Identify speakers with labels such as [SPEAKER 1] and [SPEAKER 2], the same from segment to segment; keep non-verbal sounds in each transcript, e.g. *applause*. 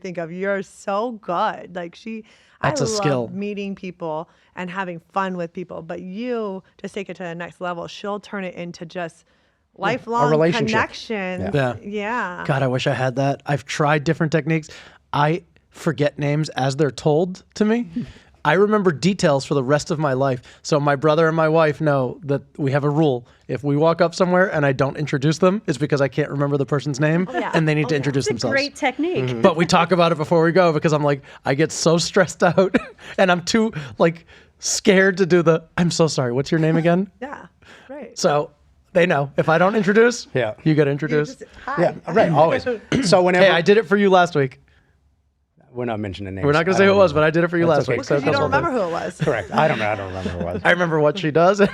[SPEAKER 1] think of. You're so good. Like she,
[SPEAKER 2] That's
[SPEAKER 1] I
[SPEAKER 2] a
[SPEAKER 1] love
[SPEAKER 2] skill.
[SPEAKER 1] meeting people and having fun with people. But you just take it to the next level. She'll turn it into just lifelong
[SPEAKER 2] relationship.
[SPEAKER 1] connection.
[SPEAKER 2] Yeah.
[SPEAKER 1] yeah.
[SPEAKER 2] God, I wish I had that. I've tried different techniques. I forget names as they're told
[SPEAKER 1] *laughs*
[SPEAKER 2] to me. I remember details for the rest of my life. So my brother and my wife know that we have a rule. If we walk up somewhere and I don't introduce them, it's because I can't remember the person's name
[SPEAKER 1] Oh, yeah.
[SPEAKER 2] and they need to introduce
[SPEAKER 3] It's a
[SPEAKER 2] themselves.
[SPEAKER 3] great technique.
[SPEAKER 4] Mm-hmm.
[SPEAKER 2] but we talk about it before we go because I'm like, I get so stressed out *laughs* and I'm too like scared to do the I'm so sorry, what's your
[SPEAKER 1] *laughs*
[SPEAKER 2] name again?
[SPEAKER 1] Yeah. Right.
[SPEAKER 2] So they know. If I don't introduce,
[SPEAKER 4] Yeah.
[SPEAKER 2] you get
[SPEAKER 1] You
[SPEAKER 2] introduced.
[SPEAKER 1] just- hi.
[SPEAKER 4] Yeah,
[SPEAKER 1] *laughs*
[SPEAKER 4] right. Always. So whenever
[SPEAKER 2] Hey, I did it for you last week.
[SPEAKER 4] we're not mentioning names.
[SPEAKER 2] We're not going to
[SPEAKER 4] I
[SPEAKER 2] say who
[SPEAKER 4] don't
[SPEAKER 2] it was,
[SPEAKER 4] remember.
[SPEAKER 2] but I did it for you
[SPEAKER 4] That's
[SPEAKER 2] last
[SPEAKER 4] okay.
[SPEAKER 2] week.
[SPEAKER 1] Because
[SPEAKER 2] it
[SPEAKER 1] you don't
[SPEAKER 2] doesn't matter.
[SPEAKER 1] remember who it was.
[SPEAKER 4] Correct. I don't know. I don't remember who
[SPEAKER 2] *laughs*
[SPEAKER 4] it
[SPEAKER 2] I
[SPEAKER 4] was.
[SPEAKER 2] remember what she does.
[SPEAKER 1] *laughs*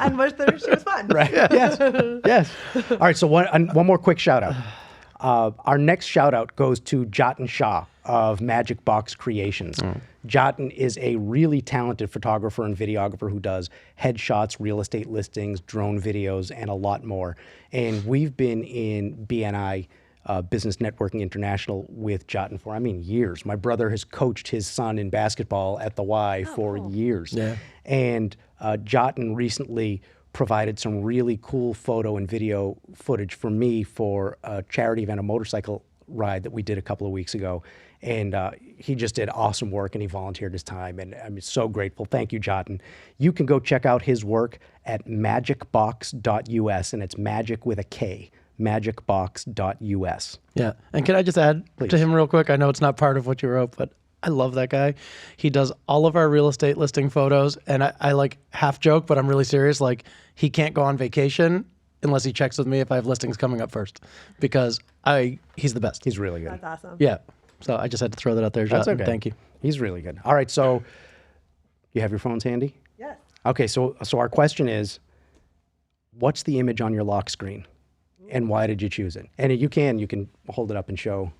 [SPEAKER 1] And was there, she was fun.
[SPEAKER 4] right. Yes. Yes. All right. So one an- one more quick shout out. Uh, our next shout out goes to Jatin Shah of Magic Box Creations.
[SPEAKER 2] Mm.
[SPEAKER 4] Jatin is a really talented photographer and videographer who does headshots, real estate listings, drone videos, and a lot more. And we've been in BNI uh, Business Networking International with Jotin for, I mean, years. My brother has coached his son in basketball at the Y for years. And uh, Jotin recently provided some really cool photo and video footage for me for a charity event, a motorcycle ride that we did a couple of weeks ago. And uh, he just did awesome work and he volunteered his time. And I'm so grateful. Thank you, Jotin. You can go check out his work at magicbox.us, and it's magic with a K magicbox.us.
[SPEAKER 2] yeah. And can I just add to him real quick? I know it's not part of what you wrote, but I love that guy. He does all of our real estate listing photos. And I, I like half joke, but I'm really serious. Like, he can't go on vacation unless he checks with me if I have listings coming up first because I he's the best.
[SPEAKER 4] He's really good.
[SPEAKER 1] That's awesome.
[SPEAKER 2] yeah. So I just had to throw that out there,
[SPEAKER 4] That's
[SPEAKER 2] Jotin.
[SPEAKER 4] okay.
[SPEAKER 2] Thank you.
[SPEAKER 4] He's really good. All right, so you have your phones handy?
[SPEAKER 1] Yes.
[SPEAKER 4] Okay, so so our question is what's the image on your lock screen and why did you choose it? And you can you can hold it up and show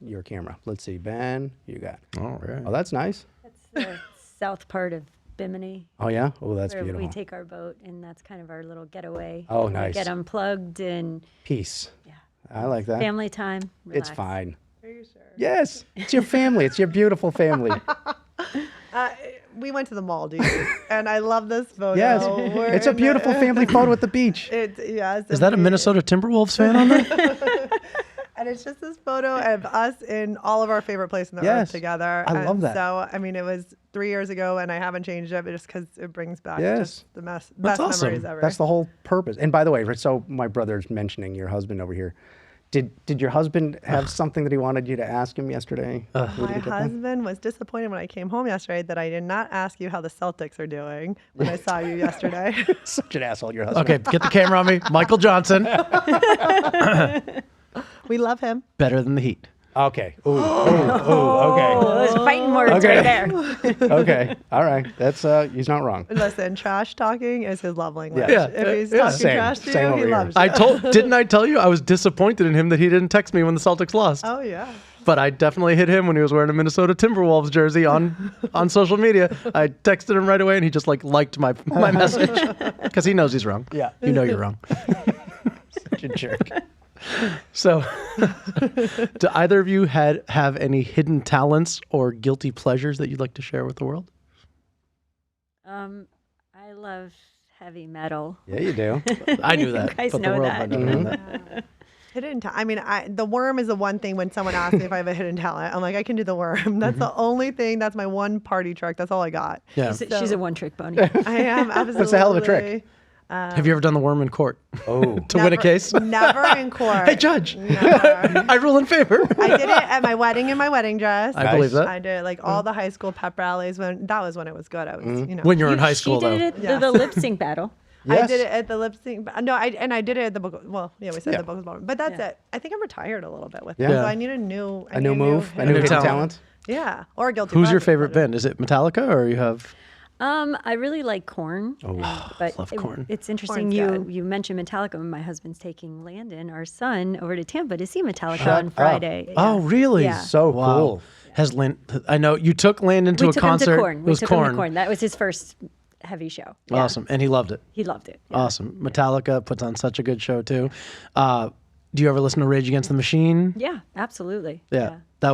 [SPEAKER 4] your camera. Let's see, Ben, you got.
[SPEAKER 2] All right.
[SPEAKER 4] Oh, that's nice.
[SPEAKER 3] That's the south part of Bimini.
[SPEAKER 4] Oh yeah. Oh, that's
[SPEAKER 3] where
[SPEAKER 4] beautiful.
[SPEAKER 3] we take our boat, and that's kind of our little getaway.
[SPEAKER 4] Oh,
[SPEAKER 3] We
[SPEAKER 4] nice.
[SPEAKER 3] Get unplugged and
[SPEAKER 4] Peace. Yeah. I like that.
[SPEAKER 3] family time. relax.
[SPEAKER 4] It's fine.
[SPEAKER 1] Are you sure?
[SPEAKER 4] Yes, it's your family. It's your beautiful family.
[SPEAKER 1] We went to the Maldives, and I love this photo.
[SPEAKER 4] Yes,
[SPEAKER 1] We're
[SPEAKER 4] it's a
[SPEAKER 1] in the-
[SPEAKER 4] beautiful family photo at the beach.
[SPEAKER 1] It, yes.
[SPEAKER 2] Is that a Minnesota Timberwolves fan on there?
[SPEAKER 1] And it's just this photo of us in all of our favorite place in the
[SPEAKER 4] Yes.
[SPEAKER 1] earth together.
[SPEAKER 4] I
[SPEAKER 1] And
[SPEAKER 4] love that.
[SPEAKER 1] So, I mean, it was three years ago, and I haven't changed it just because it brings back
[SPEAKER 4] Yes.
[SPEAKER 1] just the mess,
[SPEAKER 2] That's
[SPEAKER 1] best memories
[SPEAKER 2] awesome.
[SPEAKER 1] ever.
[SPEAKER 4] That's the whole purpose. And by the way, right, so my brother's mentioning your husband over here. Did did your husband have something that he wanted you to ask him yesterday? Where
[SPEAKER 1] My
[SPEAKER 4] did you get that?
[SPEAKER 1] husband was disappointed when I came home yesterday that I did not ask you how the Celtics are doing when I saw
[SPEAKER 4] *laughs*
[SPEAKER 1] you yesterday. *laughs*
[SPEAKER 4] Such an asshole, your husband.
[SPEAKER 2] okay, get the camera *laughs* on me. Michael Johnson,
[SPEAKER 1] we love him.
[SPEAKER 2] better than the Heat.
[SPEAKER 4] Okay.
[SPEAKER 1] *gasps*
[SPEAKER 4] Ooh. Ooh. Ooh.
[SPEAKER 3] Oh, those fighting words
[SPEAKER 4] Okay.
[SPEAKER 3] right
[SPEAKER 4] *laughs*
[SPEAKER 3] there.
[SPEAKER 4] Okay. Okay. All right. That's uh. He's not wrong.
[SPEAKER 1] Listen, trash talking is his love language.
[SPEAKER 4] Yeah.
[SPEAKER 1] If he's
[SPEAKER 2] Yeah,
[SPEAKER 1] talking
[SPEAKER 4] same-
[SPEAKER 1] trash to
[SPEAKER 4] same
[SPEAKER 1] you,
[SPEAKER 4] over
[SPEAKER 1] he
[SPEAKER 4] here.
[SPEAKER 1] loves you.
[SPEAKER 2] I told didn't I tell you I was disappointed in him that he didn't text me when the Celtics lost.
[SPEAKER 1] oh, yeah.
[SPEAKER 2] But I definitely hit him when he was wearing a Minnesota Timberwolves jersey
[SPEAKER 3] *laughs*
[SPEAKER 2] on on social media. I texted him right away and he just like liked my
[SPEAKER 3] *laughs*
[SPEAKER 2] my message cuz he knows he's wrong.
[SPEAKER 4] Yeah. *laughs*
[SPEAKER 2] You know you're wrong.
[SPEAKER 4] Such a jerk.
[SPEAKER 2] So *laughs* do either of you had have any hidden talents or guilty pleasures that you'd like to share with the
[SPEAKER 3] *laughs*
[SPEAKER 2] world?
[SPEAKER 3] Um, I love heavy metal.
[SPEAKER 4] Yeah,
[SPEAKER 1] *laughs*
[SPEAKER 4] you do.
[SPEAKER 2] I knew that.
[SPEAKER 3] guys
[SPEAKER 2] but the
[SPEAKER 3] know
[SPEAKER 2] world
[SPEAKER 3] that.
[SPEAKER 2] might not
[SPEAKER 3] Mm-hmm.
[SPEAKER 2] know that.
[SPEAKER 1] Hidden talent. I mean, I, the worm is the one thing when someone asks me if I have a hidden talent. I'm like, I can do the worm. *laughs* That's the only thing. That's my one party trick. That's all I got.
[SPEAKER 2] Yeah.
[SPEAKER 3] She's, she's a one-trick
[SPEAKER 4] *laughs*
[SPEAKER 3] pony.
[SPEAKER 1] I am absolutely.
[SPEAKER 4] a hell of a trick.
[SPEAKER 2] Have you ever done the worm in court
[SPEAKER 4] Oh.
[SPEAKER 2] to win a
[SPEAKER 1] Never-
[SPEAKER 2] case? *laughs*
[SPEAKER 1] Never in court.
[SPEAKER 2] Hey
[SPEAKER 3] *laughs*
[SPEAKER 2] judge,
[SPEAKER 1] Never.
[SPEAKER 2] I rule in favor. *laughs*
[SPEAKER 1] I did it at my wedding in my wedding dress.
[SPEAKER 2] I believe that.
[SPEAKER 1] I did like all the high school pep rallies when that was when it was good. I was, you know,
[SPEAKER 2] When you're in
[SPEAKER 3] You-
[SPEAKER 2] high school,
[SPEAKER 3] she
[SPEAKER 2] though.
[SPEAKER 3] did it
[SPEAKER 1] Yeah.
[SPEAKER 3] the, the
[SPEAKER 2] *laughs*
[SPEAKER 3] lip sync battle.
[SPEAKER 1] I
[SPEAKER 4] Yes.
[SPEAKER 1] did it at the lip sync. but- No, I and I did it at the book. Well, yeah, we said
[SPEAKER 4] Yeah.
[SPEAKER 1] the book ballroom, but that's
[SPEAKER 3] Yeah.
[SPEAKER 1] it. I think I'm retired a little bit with
[SPEAKER 4] Yeah.
[SPEAKER 1] it, so
[SPEAKER 2] Yeah.
[SPEAKER 1] I need a new, I
[SPEAKER 4] A
[SPEAKER 1] need
[SPEAKER 4] new move. A new
[SPEAKER 2] hidden
[SPEAKER 4] hidden
[SPEAKER 2] talent.
[SPEAKER 4] talent.
[SPEAKER 1] Yeah, or a guilty.
[SPEAKER 2] Who's your
[SPEAKER 1] pleasure.
[SPEAKER 2] favorite band? Is it Metallica or you have?
[SPEAKER 3] Um, I really like corn. Oh, but
[SPEAKER 2] love
[SPEAKER 3] it-
[SPEAKER 2] Korn.
[SPEAKER 3] It's interesting
[SPEAKER 1] Korn's
[SPEAKER 3] you
[SPEAKER 1] good.
[SPEAKER 3] you mentioned Metallica. When my husband's taking Landon, our son, over to Tampa to see Metallica on
[SPEAKER 4] up.
[SPEAKER 3] Friday.
[SPEAKER 2] Oh, really?
[SPEAKER 3] Yeah.
[SPEAKER 4] So
[SPEAKER 2] Wow.
[SPEAKER 4] cool.
[SPEAKER 2] Has Lynn? I know you took Landon to
[SPEAKER 3] we
[SPEAKER 2] a
[SPEAKER 3] took
[SPEAKER 2] concert.
[SPEAKER 3] him to corn.
[SPEAKER 2] It
[SPEAKER 3] We
[SPEAKER 2] was
[SPEAKER 3] took
[SPEAKER 2] Korn.
[SPEAKER 3] him to corn. That was his first heavy show. Yeah.
[SPEAKER 2] Awesome, and he loved it.
[SPEAKER 3] He loved it.
[SPEAKER 2] Awesome. Metallica puts on such a good show too. Uh, do you ever listen to Rage Against the Machine?
[SPEAKER 3] Yeah, absolutely.
[SPEAKER 2] Yeah, that